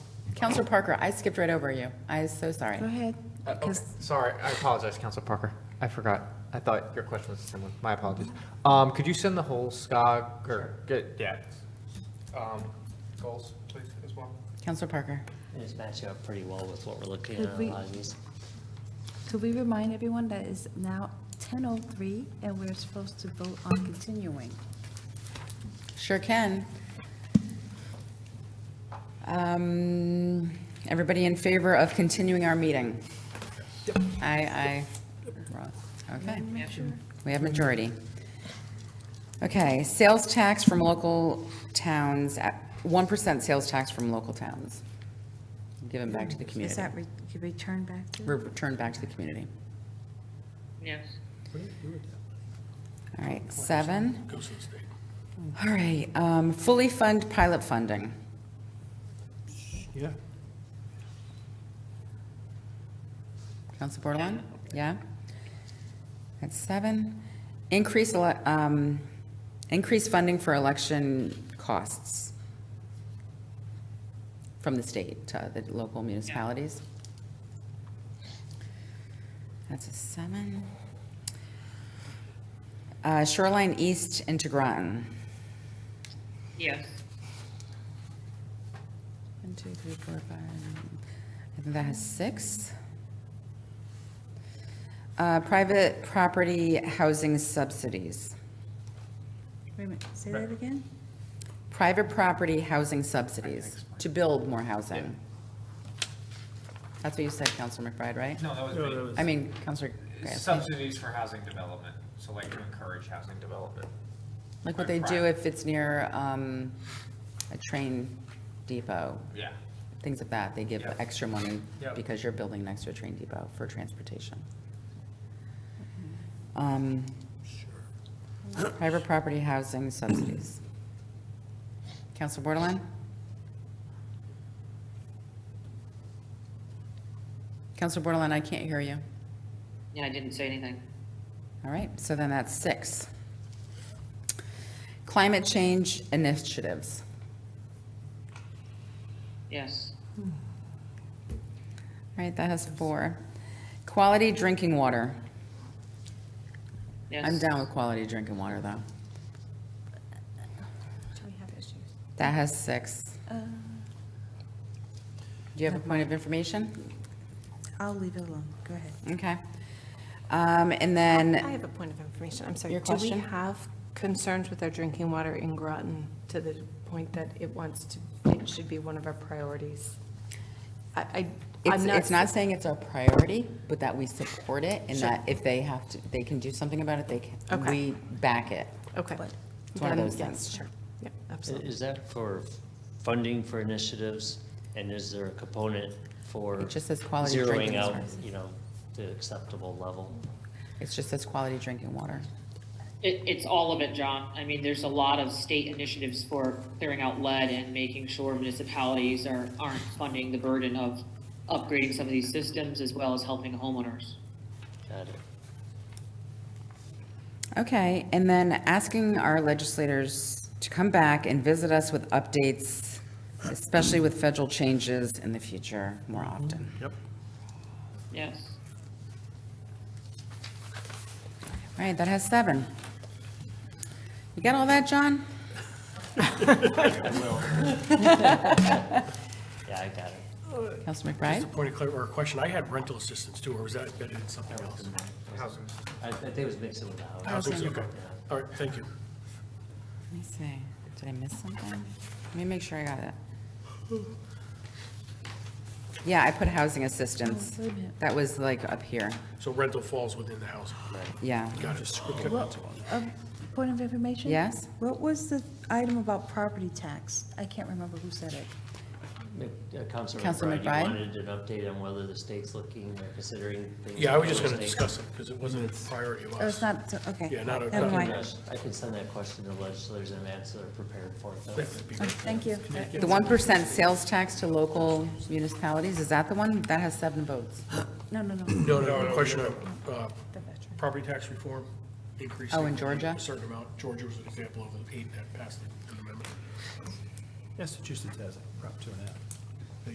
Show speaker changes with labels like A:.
A: Counselor Parker, I skipped right over you. I is so sorry.
B: Go ahead.
C: Uh, okay.
B: 'cause-
C: Sorry, I apologize, Council Parker. I forgot. I thought your question was the same one. My apologies. Um, could you send the whole SCOG or get, yeah. Um, goals, please, as well?
A: Counselor Parker.
D: It's matching up pretty well with what we're looking
B: Could
D: at on
B: we-
D: a lot of these.
B: Could we remind everyone that it's now 10:03 and we're supposed to vote on continuing?
A: Sure can. Um, Everybody in favor of continuing our meeting? Aye, aye. Ross. Okay. We have majority. Okay, sales tax from local towns, uh, 1% sales tax from local towns. Given back to the
B: Is
A: community.
B: that re- could return back to?
A: Re- Returned back to the community.
E: Yes.
A: All right, seven. All right, um, fully fund pilot funding.
F: Yeah.
A: Council Bordelon? Yeah? That's seven. Increase, ele- um, increase funding for election costs from the state to the local municipalities. That's a seven. Uh, Shoreline East into Groton.
E: Yes.
A: One, two, three, four, five. I think that has six. Uh, Private property housing subsidies.
B: Wait a minute, say that again?
A: Private property housing subsidies to build more housing. That's what you said, Counselor McBride, right?
G: No, that was
A: I mean, Counselor,
G: me.
A: Grassley.
G: Subsidies for housing development, so like to encourage housing development.
A: like what they do
G: private.
A: if it's near um, a train depot,
G: Yeah.
A: things like that. They give
G: Yeah.
A: extra money
G: Yeah.
A: because you're building next to a train depot for transportation. Um, Private property housing subsidies. Counselor Borderland? Counselor Borderland, I can't hear you.
E: Yeah, I didn't say anything.
A: All right, so then that's six. Climate change initiatives.
E: Yes.
A: All right, that has four. Quality drinking water.
E: Yes.
A: I'm down with quality drinking water, though.
B: Do we have issues?
A: That has six.
B: Uh,
A: Do you have a point of information?
B: I'll leave it alone, go ahead.
A: Okay. Um, and
H: I
A: then,
H: have a point of information, I'm sorry.
A: Your question?
H: Do we have concerns with our drinking water in Groton to the point that it wants to, it should be one of our priorities? I, I-
A: it's,
H: I'm not.
A: it's not saying it's our priority, but that we support it and
H: Sure.
A: that if they have to, they can do something about it, they can,
H: Okay.
A: we back it.
H: Okay.
A: It's one of
H: Then
A: those
H: yes,
A: things.
H: Sure, yeah,
D: I-
H: absolutely.
D: Is that for funding for initiatives? And is there a component for
A: It just says quality of
D: zeroing
A: drinking
D: out,
A: sources.
D: you know, the acceptable level?
A: It's just this quality drinking water.
E: It, it's all of it, John. I mean, there's a lot of state initiatives for clearing out lead and making sure municipalities are, aren't funding the burden of upgrading some of these systems as well as helping homeowners.
D: Got it.
A: Okay, and then asking our legislators to come back and visit us with updates, especially with federal changes in the future more often.
F: Yep.
E: Yes.
A: All right, that has seven. You got all that, John?
D: Yeah, I got it.
A: Council
F: Just
A: McBride?
F: a point of clar- or a question, I had rental assistance too, or was that embedded in something else?
G: Housing.
D: I, I think it was mixing with the house.
F: Housing, okay. All right, thank you.
A: Let me see, did I miss something? Let me make sure I got it. Yeah, I put housing assistance.
B: Oh, wait a minute.
A: That was like up here,
F: So rental falls within the housing.
A: yeah.
F: Got it. Okay.
B: What- a Um, Point of information?
A: Yes?
B: What was the item about property tax? I can't remember who said it.
D: Uh, Councilor
A: Councilor
D: McBride,
A: McBride?
D: you wanted an update on whether the state's looking or considering things?
F: Yeah, I was just
D: for the
F: gonna
D: state?
F: discuss it, because it wasn't a priority of
B: Oh, it's
F: us.
B: not, okay.
F: Yeah, not a-
B: Never
F: not a-
B: mind.
D: Yes, I can send that question to legislators in advance so they're prepared for it. though.
F: That would be
B: Oh,
F: great.
B: Thank you.
A: The 1% sales tax to local municipalities, is that the one? That has seven votes.
B: No, no, no.
F: No, no, a question of, uh,
B: The veteran.
F: property tax reform, increasing.
A: Oh, in Georgia?
F: A certain amount, Georgia was an example of an eight that passed an amendment.
I: Massachusetts has it, Prop two and a half.